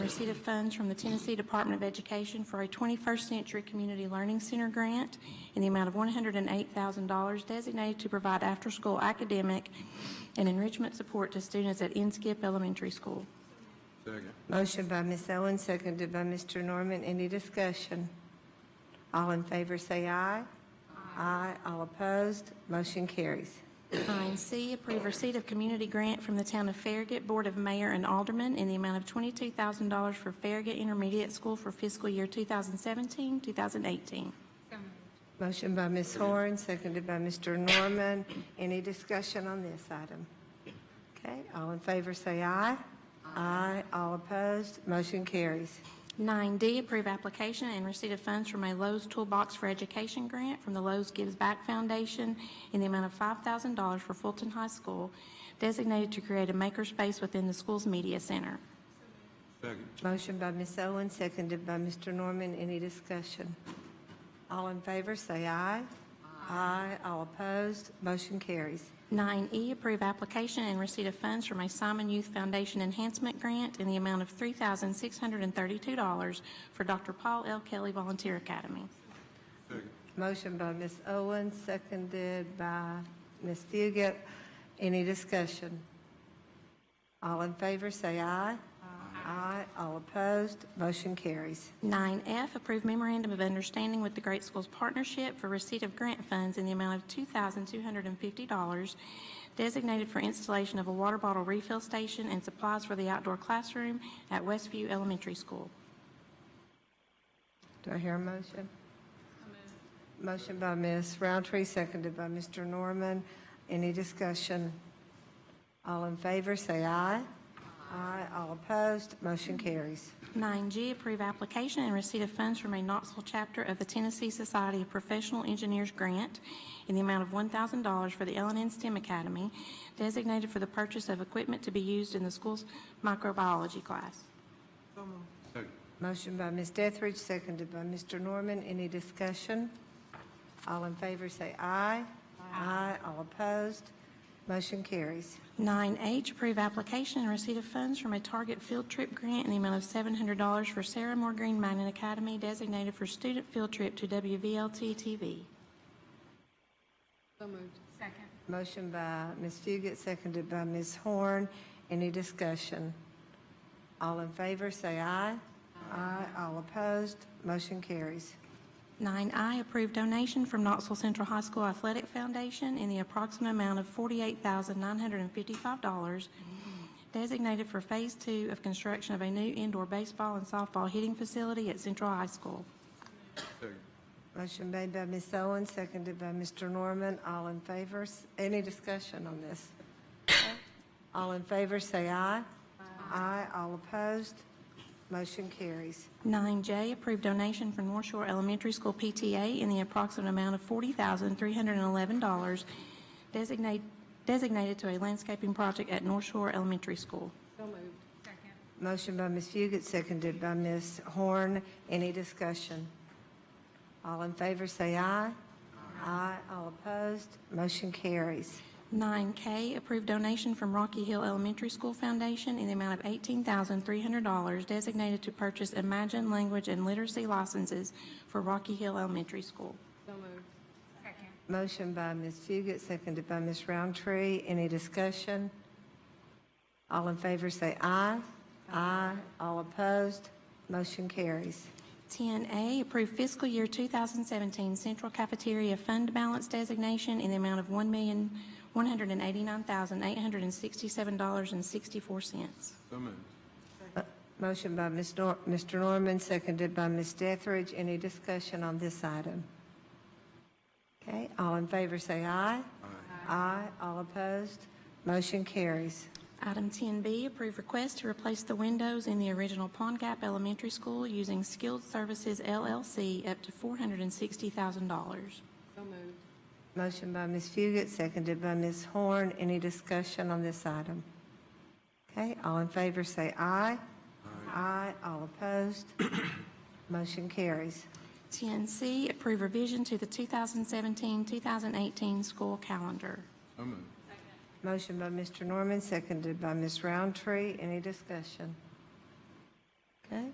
receipt of funds from the Tennessee Department of Education for a 21st Century Community Learning Center grant in the amount of $108,000 designated to provide after-school academic and enrichment support to students at Inskip Elementary School. Second. Motion by Ms. Owen, seconded by Mr. Norman. Any discussion? All in favor, say aye. Aye. All opposed, motion carries. Nine C, approve receipt of community grant from the Town of Farragut Board of Mayor and Aldermen in the amount of $22,000 for Farragut Intermediate School for fiscal year 2017, 2018. Motion by Ms. Horn, seconded by Mr. Norman. Any discussion on this item? Okay, all in favor, say aye. Aye. All opposed, motion carries. 9D, approve application and receipt of funds from a Lowe's Toolbox for Education grant from the Lowe's Gives Back Foundation in the amount of $5,000 for Fulton High School, designated to create a makerspace within the school's media center. Second. Motion by Ms. Owen, seconded by Mr. Norman. Any discussion? All in favor, say aye. Aye. All opposed, motion carries. 9E, E, approve application and receipt of funds from a Simon Youth Foundation Enhancement Grant in the amount of $3,632 for Dr. Paul L. Kelly Volunteer Academy. Second. Motion by Ms. Owen, seconded by Ms. Fugit. Any discussion? All in favor, say aye. Aye. All opposed, motion carries. 9F, approve memorandum of understanding with the Great Schools Partnership for receipt of grant funds in the amount of $2,250 designated for installation of a water bottle refill station and supplies for the outdoor classroom at Westview Elementary School. Do I hear a motion? Motion by Ms. Roundtree, seconded by Mr. Norman. Any discussion? All in favor, say aye. Aye. All opposed, motion carries. 9G, approve application and receipt of funds from a Knoxville chapter of the Tennessee Society of Professional Engineers grant in the amount of $1,000 for the LNN STEM Academy designated for the purchase of equipment to be used in the school's microbiology class. Second. Motion by Ms. Dethridge, seconded by Mr. Norman. Any discussion? All in favor, say aye. Aye. All opposed, motion carries. 9H, approve application and receipt of funds from a Target field trip grant in the amount of $700 for Sarah Moore Green Mountain Academy designated for student field trip to WVLT-TV. Motion by Ms. Fugit, seconded by Ms. Horn. Any discussion? All in favor, say aye. Aye. All opposed, motion carries. 9I, approve donation from Knoxville Central High School Athletic Foundation in the approximate amount of $48,955 designated for Phase 2 of construction of a new indoor baseball and softball hitting facility at Central High School. Second. Motion made by Ms. Owen, seconded by Mr. Norman. All in favor, s- any discussion on this? All in favor, say aye. Aye. All opposed, motion carries. 9J, approved donation from North Shore Elementary School PTA in the approximate amount of $40,311 designate- designated to a landscaping project at North Shore Elementary School. Motion by Ms. Fugit, seconded by Ms. Horn. Any discussion? All in favor, say aye. Aye. All opposed, motion carries. 9K, approved donation from Rocky Hill Elementary School Foundation in the amount of $18,300 designated to purchase Imagine Language and Literacy licenses for Rocky Hill Elementary School. Motion by Ms. Fugit, seconded by Ms. Roundtree. Any discussion? All in favor, say aye. Aye. All opposed, motion carries. 10A, approve fiscal year 2017 Central Cafeteria Fund Balance Designation in the amount of $1,189,867.64. So moved. Motion by Ms. Nor- Mr. Norman, seconded by Ms. Dethridge. Any discussion on this item? Okay, all in favor, say aye. Aye. All opposed, motion carries. Item 10B, approve request to replace the windows in the original Pond Gap Elementary School using Skilled Services LLC up to $460,000. Motion by Ms. Fugit, seconded by Ms. Horn. Any discussion on this item? Okay, all in favor, say aye. Aye. All opposed, motion carries. 10C, approve revision to the 2017-2018 school calendar. So moved. Motion by Mr. Norman, seconded by Ms. Roundtree. Any discussion?